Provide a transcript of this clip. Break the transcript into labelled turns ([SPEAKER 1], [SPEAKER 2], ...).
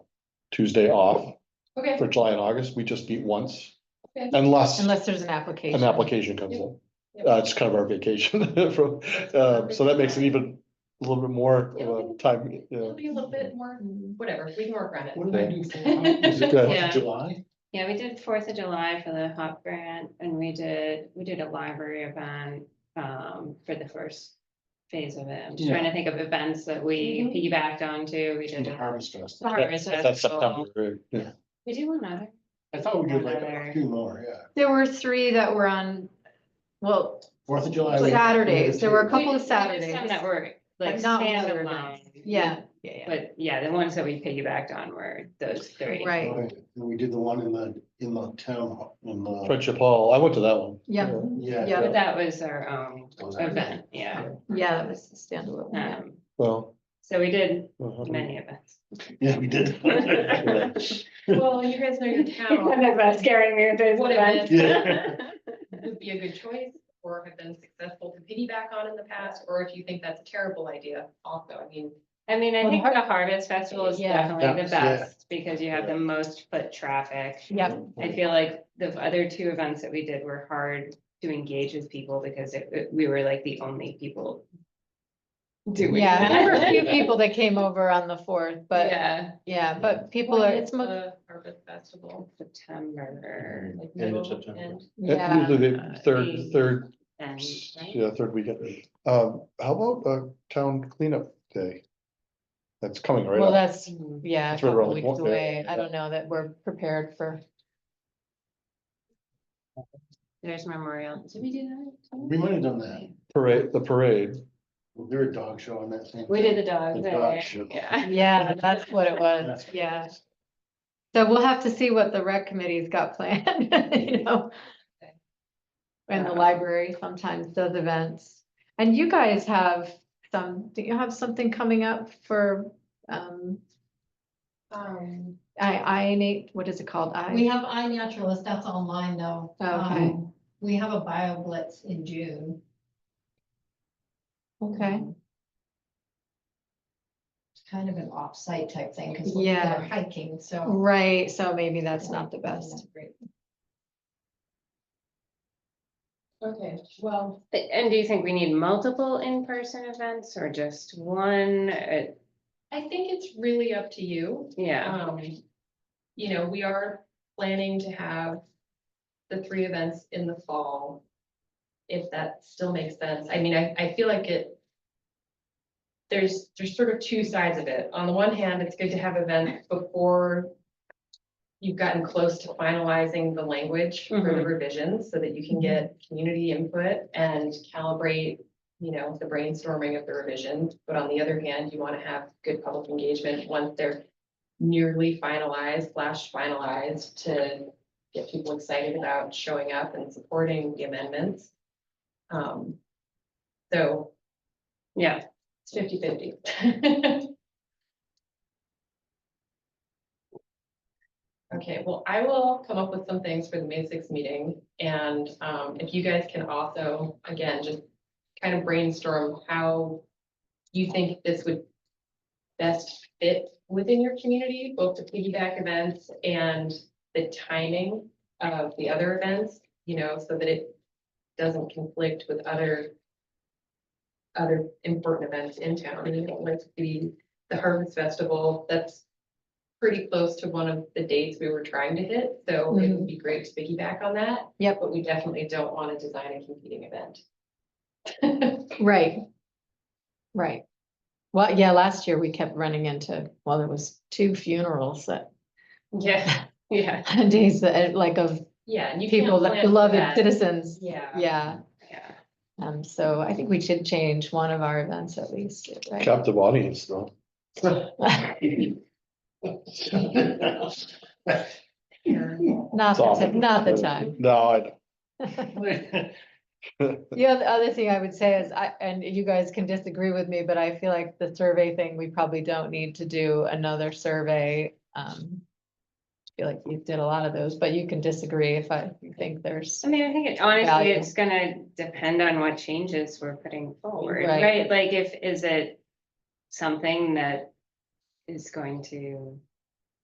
[SPEAKER 1] Tuesday off
[SPEAKER 2] Okay,
[SPEAKER 1] for July and August. We just meet once.
[SPEAKER 2] Okay.
[SPEAKER 1] Unless
[SPEAKER 3] Unless there's an application.
[SPEAKER 1] an application comes in.
[SPEAKER 2] Yep.
[SPEAKER 1] Uh, it's kind of our vacation from, uh, so that makes it even a little bit more of a time, you
[SPEAKER 2] it'll
[SPEAKER 1] know.
[SPEAKER 2] be a little bit more, whatever, we can work around it.
[SPEAKER 4] What did I do for, was
[SPEAKER 1] Good.
[SPEAKER 4] it Fourth
[SPEAKER 5] Yeah.
[SPEAKER 4] of July?
[SPEAKER 5] Yeah, we did Fourth of July for the HOP grant and we did, we did a library event um for the first phase of it. I'm just trying to think of events that
[SPEAKER 3] Mm-hmm.
[SPEAKER 5] we
[SPEAKER 2] Mhm.
[SPEAKER 5] piggybacked on to. We did.
[SPEAKER 4] And
[SPEAKER 5] a
[SPEAKER 4] Harvest Fest.
[SPEAKER 5] harvest
[SPEAKER 1] That's September,
[SPEAKER 5] festival.
[SPEAKER 1] right? yeah.
[SPEAKER 5] We did one other.
[SPEAKER 4] I thought we did like a
[SPEAKER 5] Another.
[SPEAKER 4] few more, yeah.
[SPEAKER 3] There were three that were on, well,
[SPEAKER 4] Fourth of July. we-
[SPEAKER 3] Saturdays, there were a
[SPEAKER 4] Yeah.
[SPEAKER 3] couple of
[SPEAKER 5] We did Some
[SPEAKER 3] Saturdays.
[SPEAKER 5] that were like
[SPEAKER 3] but not other
[SPEAKER 5] standalone.
[SPEAKER 3] events. Yeah, yeah,
[SPEAKER 5] But yeah, the ones that we piggybacked on were those
[SPEAKER 3] yeah,
[SPEAKER 5] three.
[SPEAKER 3] right,
[SPEAKER 4] And we did the one in the, in the town, hall, in the,
[SPEAKER 1] Friendship Hall, I went to that one.
[SPEAKER 3] yeah,
[SPEAKER 4] yeah.
[SPEAKER 3] Yeah.
[SPEAKER 5] But that was our own
[SPEAKER 4] Was that-
[SPEAKER 5] event, yeah.
[SPEAKER 3] yeah, that was the standalone. yeah.
[SPEAKER 5] Um,
[SPEAKER 1] Well.
[SPEAKER 5] so we did
[SPEAKER 1] uh-huh.
[SPEAKER 5] many events.
[SPEAKER 4] Yeah, we did.
[SPEAKER 2] Well, you guys know your
[SPEAKER 3] Oh.
[SPEAKER 2] town
[SPEAKER 5] scaring me with those
[SPEAKER 2] What events.
[SPEAKER 4] Yeah.
[SPEAKER 2] would be a good choice or have been successful to piggyback on in the past, or if you think that's a terrible idea also, I mean.
[SPEAKER 5] I mean, I
[SPEAKER 3] Well,
[SPEAKER 5] think the Harvest Festival is
[SPEAKER 3] Yeah.
[SPEAKER 5] definitely the
[SPEAKER 4] That's- yeah.
[SPEAKER 5] best because you have the most foot traffic.
[SPEAKER 3] Yep,
[SPEAKER 5] I feel like the other two events that we did were hard to engage with people because it- it, we were like the only people. Doing.
[SPEAKER 3] yeah, and there were a few
[SPEAKER 5] that.
[SPEAKER 3] people that came over on the fourth, but,
[SPEAKER 5] Yeah.
[SPEAKER 3] yeah, but people are, it's, mo-
[SPEAKER 2] The Harvest Festival.
[SPEAKER 5] September
[SPEAKER 2] like
[SPEAKER 4] End of
[SPEAKER 2] middle,
[SPEAKER 4] September.
[SPEAKER 2] end.
[SPEAKER 1] Yeah,
[SPEAKER 3] yeah,
[SPEAKER 1] Usually the
[SPEAKER 5] Yeah.
[SPEAKER 1] third, third,
[SPEAKER 5] and.
[SPEAKER 1] yeah, third weekend. Um, how about a town cleanup day? That's coming right
[SPEAKER 3] well,
[SPEAKER 1] up.
[SPEAKER 3] that's,
[SPEAKER 5] Mm,
[SPEAKER 3] yeah, a
[SPEAKER 1] It's right
[SPEAKER 3] couple
[SPEAKER 1] around the
[SPEAKER 3] weeks
[SPEAKER 1] corner,
[SPEAKER 3] away.
[SPEAKER 1] yeah.
[SPEAKER 3] I don't know that we're prepared for,
[SPEAKER 5] There's Memorial. Did we do that?
[SPEAKER 4] We might have done that.
[SPEAKER 1] Parade, the parade.
[SPEAKER 4] Well, There were a dog show on that same.
[SPEAKER 5] We did the dog
[SPEAKER 4] The
[SPEAKER 5] there.
[SPEAKER 4] dog show.
[SPEAKER 5] Yeah.
[SPEAKER 3] yeah, that's what it was, yeah. So we'll have to see what the rec committee's got planned, you know? And the
[SPEAKER 5] Yeah.
[SPEAKER 3] library sometimes does events. And you guys have some, do you have something coming up for, um,
[SPEAKER 2] Um,
[SPEAKER 3] I, I, what is it called?
[SPEAKER 6] We
[SPEAKER 3] I,
[SPEAKER 6] have iNaturalist, that's online though.
[SPEAKER 3] Oh, Okay.
[SPEAKER 6] Um, We have a bio blitz in June.
[SPEAKER 3] okay,
[SPEAKER 6] Um, It's kind of an off-site type thing because
[SPEAKER 3] Yeah.
[SPEAKER 6] we're hiking, so.
[SPEAKER 3] right, so maybe that's not the best.
[SPEAKER 2] okay, well,
[SPEAKER 5] And do you think we need multiple in-person events or just one? Uh,
[SPEAKER 2] I think it's really up to you.
[SPEAKER 5] Yeah.
[SPEAKER 2] Um, you know, we are planning to have the three events in the fall. If that still makes sense. I mean, I, I feel like it. There's, there's sort of two sides of it. On the one hand, it's good to have events before. You've gotten close to finalizing the language for the
[SPEAKER 5] Mhm.
[SPEAKER 2] revisions so that you can get community input and calibrate. You know, the brainstorming of the revisions. But on the other hand, you want to have good public engagement once they're nearly finalized, slash finalized to get people excited about showing up and supporting the amendments. Um, so
[SPEAKER 5] Yeah,
[SPEAKER 2] it's 50-50. Okay, well, I will come up with some things for the May sixth meeting, and, um, if you guys can also, again, just kind of brainstorm how you think this would best fit within your community, both the piggyback events and the timing of the other events, you know, so that it doesn't conflict with other other important events in town. And you don't like the, the Harvest Festival, that's pretty close to one of the dates we were trying to hit, so it would be great to piggyback on that.
[SPEAKER 3] Yep.
[SPEAKER 2] But we definitely don't want to design a competing event.
[SPEAKER 3] Right. Right. Well, yeah, last year we kept running into, well, there was two funerals that,
[SPEAKER 5] yeah, yeah,
[SPEAKER 3] days that, eh, like of
[SPEAKER 2] Yeah, and you can't
[SPEAKER 3] people
[SPEAKER 2] plan
[SPEAKER 3] that
[SPEAKER 2] for
[SPEAKER 3] beloved
[SPEAKER 2] that.
[SPEAKER 3] citizens.
[SPEAKER 2] Yeah.
[SPEAKER 3] Yeah,
[SPEAKER 5] yeah.
[SPEAKER 3] um, so I think we should change one of our events at least, right?
[SPEAKER 1] Captive audience though.
[SPEAKER 3] Not the time, not the time.
[SPEAKER 1] No, I,
[SPEAKER 3] The oth- other thing I would say is, I, and you guys can disagree with me, but I feel like the survey thing, we probably don't need to do another survey. Um, I feel like you did a lot of those, but you can disagree if I think there's,
[SPEAKER 5] I mean, I think it- honestly,
[SPEAKER 3] Value.
[SPEAKER 5] it's gonna depend on what changes we're putting forward,
[SPEAKER 3] Right.
[SPEAKER 5] right? Like if, is it something that is going to